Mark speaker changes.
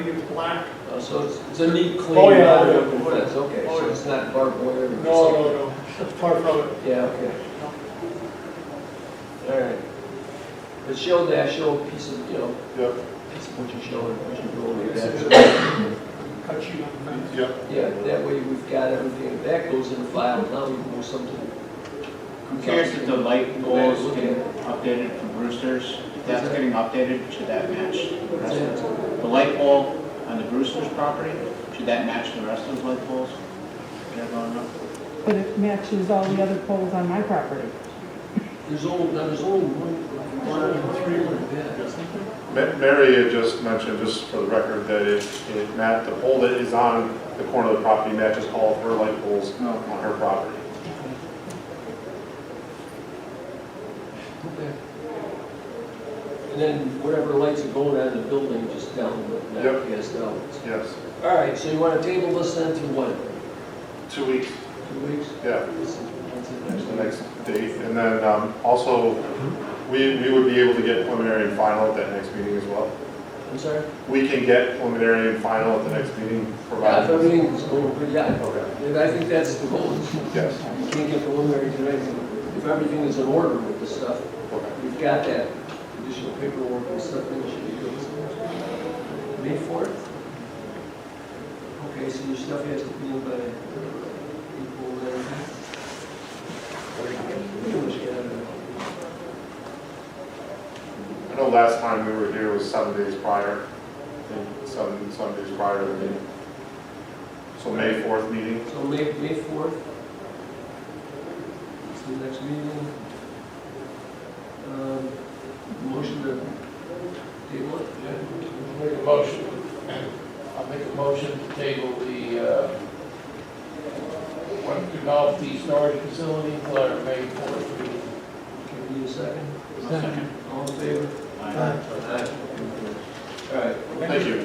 Speaker 1: It's black.
Speaker 2: Oh, So it's, it's a neat clean.
Speaker 1: Oh, yeah.
Speaker 2: wooden fence, okay,
Speaker 1: Oh,
Speaker 2: so
Speaker 1: yeah.
Speaker 2: it's not barbed wire.
Speaker 1: No,
Speaker 2: or something.
Speaker 1: no, no, that's part from it.
Speaker 2: Yeah, okay. All right. But show that, show a piece of, you know,
Speaker 3: Yep,
Speaker 2: piece of what you show and what you roll with that.
Speaker 1: Cut sheet on the fence.
Speaker 3: yep.
Speaker 2: Yeah, that way we've got everything, that goes in the file, now we move something.
Speaker 4: Compared to the light poles getting updated from Brewster's, if that's getting updated, should that match the rest of it? The light pole on the Brewster's property, should that match the rest of the light poles? that are going up?
Speaker 5: But it matches all the other poles on my property.
Speaker 2: There's only, now there's only one, one or three like that.
Speaker 3: Ma- Mary had just mentioned, just for the record, that it, it mat the pole that is on the corner of the property matches all of her light poles
Speaker 1: Oh.
Speaker 4: No.
Speaker 3: on her property.
Speaker 2: Okay. And then whatever lights are going on in the building, just down, but not
Speaker 3: Yep.
Speaker 2: cast out.
Speaker 3: Yes,
Speaker 2: All right, so you want to table this then to what,
Speaker 3: two weeks,
Speaker 2: two weeks?
Speaker 3: yeah,
Speaker 2: That's
Speaker 3: the next date. And then, um, also, we, we would be able to get preliminary and final at that next meeting as well.
Speaker 2: I'm sorry?
Speaker 3: We can get preliminary and final at the next meeting,
Speaker 2: Yeah, if
Speaker 3: provided.
Speaker 2: everything's going pretty, yeah, okay. And I think that's the goal. You
Speaker 3: Yes,
Speaker 2: can't get preliminary tonight. If everything is in order with this stuff,
Speaker 3: okay,
Speaker 2: we've got that additional paperwork and stuff that should be good. May fourth? Okay, so your stuff has to be in by April then. Pretty much got it.
Speaker 3: I know last time we were here was seven days prior, I think seven, seven days prior to the meeting. So May 4th meeting?
Speaker 2: So May, May fourth. It's the next meeting. Um, Motion to table it?
Speaker 6: Make a motion, I'll make a motion to table the, uh, one golf tee storage facility until our May fourth meeting.
Speaker 2: Can we need a second?
Speaker 4: Second.
Speaker 2: All in favor?
Speaker 4: Aye.
Speaker 2: All right.
Speaker 3: Thank you.